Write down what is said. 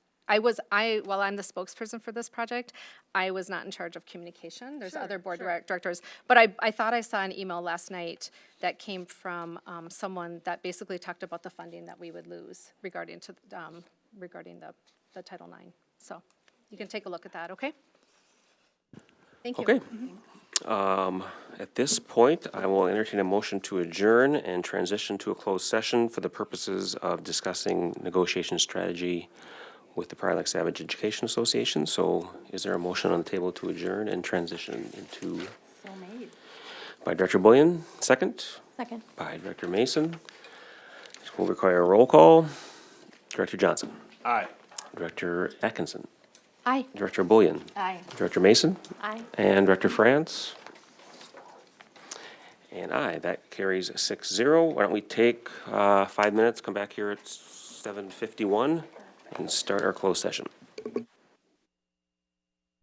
I was, I, while I'm the spokesperson for this project, I was not in charge of communication. There's other board direct- directors. But I, I thought I saw an email last night that came from um, someone that basically talked about the funding that we would lose regarding to, um, regarding the, the Title IX. So you can take a look at that, okay? Thank you. Okay. Um, At this point, I will entertain a motion to adjourn and transition to a closed session for the purposes of discussing negotiation strategy with the Prior Lake Savage Education Association. So is there a motion on the table to adjourn and transition into? So made. By Director Bullion, second. Second. By Director Mason. This will require a roll call. Director Johnson. Aye. Director Atkinson. Aye. Director Bullion. Aye. Director Mason. Aye. And Director France. And I. That carries six zero. Why don't we take uh, five minutes, come back here at 7:51 and start our closed session.